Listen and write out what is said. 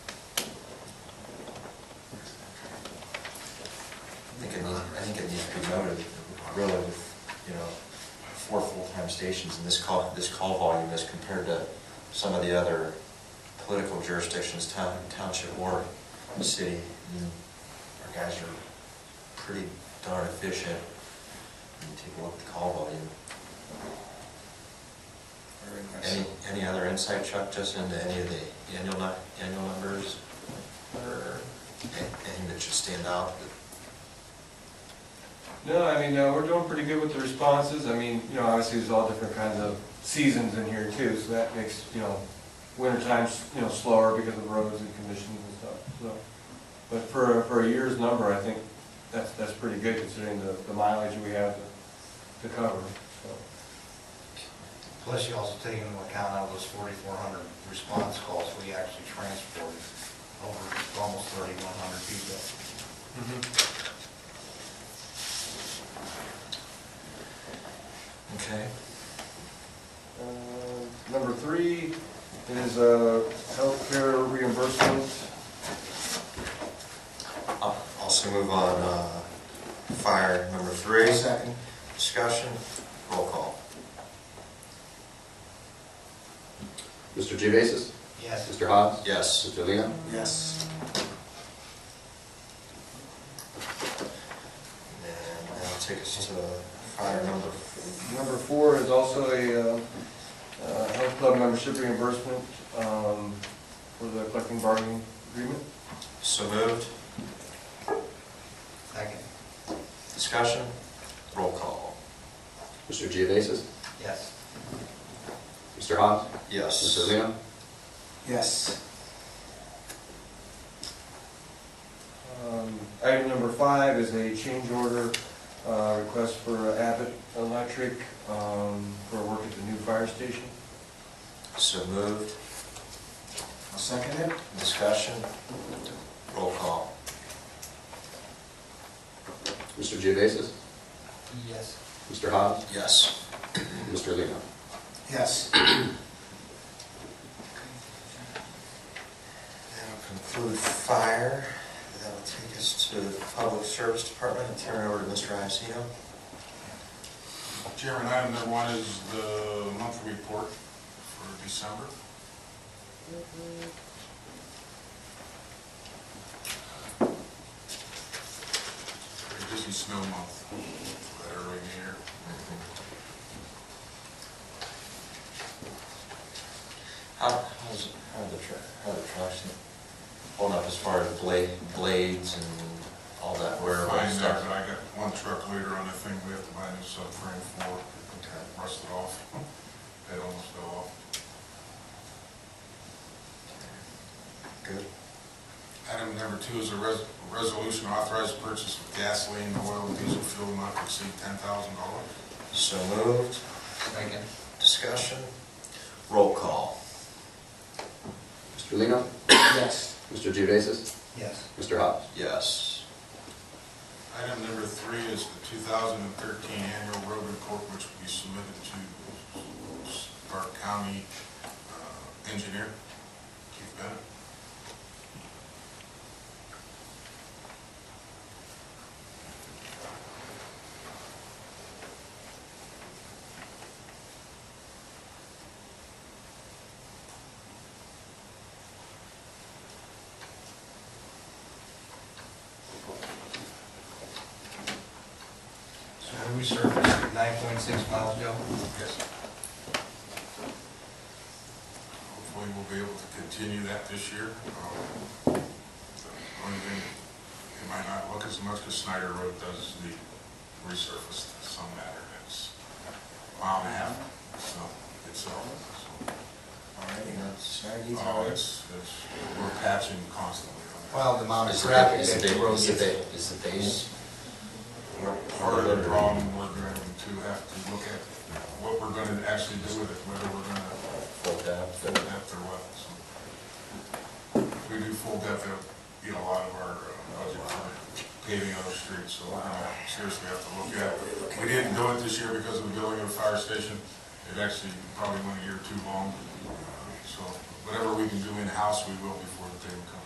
think it needs to be noted, really, with, you know, four full-time stations and this call, this call volume as compared to some of the other political jurisdictions, town, township or city, I mean, our guys are pretty darn efficient. I mean, Take a look at the call volume. Very Any, nice. any other insight, Chuck, just into any of the annual, nu- annual numbers? Or anything that should stand out? No, I mean, uh, we're doing pretty good with the responses. I mean, you know, obviously, there's all different kinds of seasons in here too, so that makes, you know, winter times, you know, slower because of roads and conditions and stuff, so. But for, a- for a year's number, I think that's, that's pretty good considering the the mileage we have to- to cover, so. Plus you also take into account out of those forty-four hundred response calls, we actually transported over almost thirty-one hundred people. Okay. Uh, Number three is uh, healthcare reimbursement. I'll Also move on, uh, fire number three. Second. Discussion, roll call. Mr. Gevasis? Yes, Mr. Hobbs? Yes. Mr. Leo? Yes. And that'll take us to fire number, Number four is also a uh, uh, health club membership reimbursement um, for the collective bargaining agreement. so moved. second, Discussion, roll call. Mr. Gevasis? yes, Mr. Hobbs? Yes. Mr. Leo? Yes. Um, Item number five is a change order uh, request for Abbott Electric um, for work at the new fire station. So moved. Seconded. Discussion, roll call. Mr. Gevasis? yes, Mr. Hobbs? Yes. Mm-hmm. Mr. Leo? Yes. That'll conclude fire. That'll take us to the Public Service Department and turn it over to Mr. Iacino. Chairman, item number one is the monthly report for December. Pretty busy snow month, that early in the year. How, how's, how the, tra- how the traction holding up as far as blade, blades and all that wear and Fine, there, stuff? but I got one truck later on, I think we have to buy a new subframe for, it. rust it off, it almost fell off. Good. Item number two is a res- resolution authorized purchase of gasoline, oil, and diesel fuel not to exceed ten thousand dollars. So moved. second, Discussion. Roll call. Mr. Leo? yes, Mr. Gevasis? yes, Mr. Hobbs? Yes. Item number three is the two thousand and thirteen annual road report, which will be submitted to Stark County uh, Engineer, Keith Bennett. so we surfaced nine point six miles, Joe? Yes. Hopefully, we'll be able to continue that this year. Um, the Only thing, it might not look as much as Snyder Road does the resurfaced some matter. It's a mile and a half, so itself. so. All right, you know, sorry, these Oh, are- it's, it's, we're patching constantly on that. Well, the amount of Is the, traffic is that the, the road is the, gets. ba- is the base? Mm-hmm. Part of the problem, we're going to have to look at what we're going to actually do with it, whether we're going to Full depth full and- depth or what. so. We do full depth, of, you know, a lot of our uh, budget for paving other streets, so we're gonna seriously have to look at it. We didn't do it this year because of the building of the fire station. It actually probably went a year too long. So whatever we can do in-house, we will before the day comes.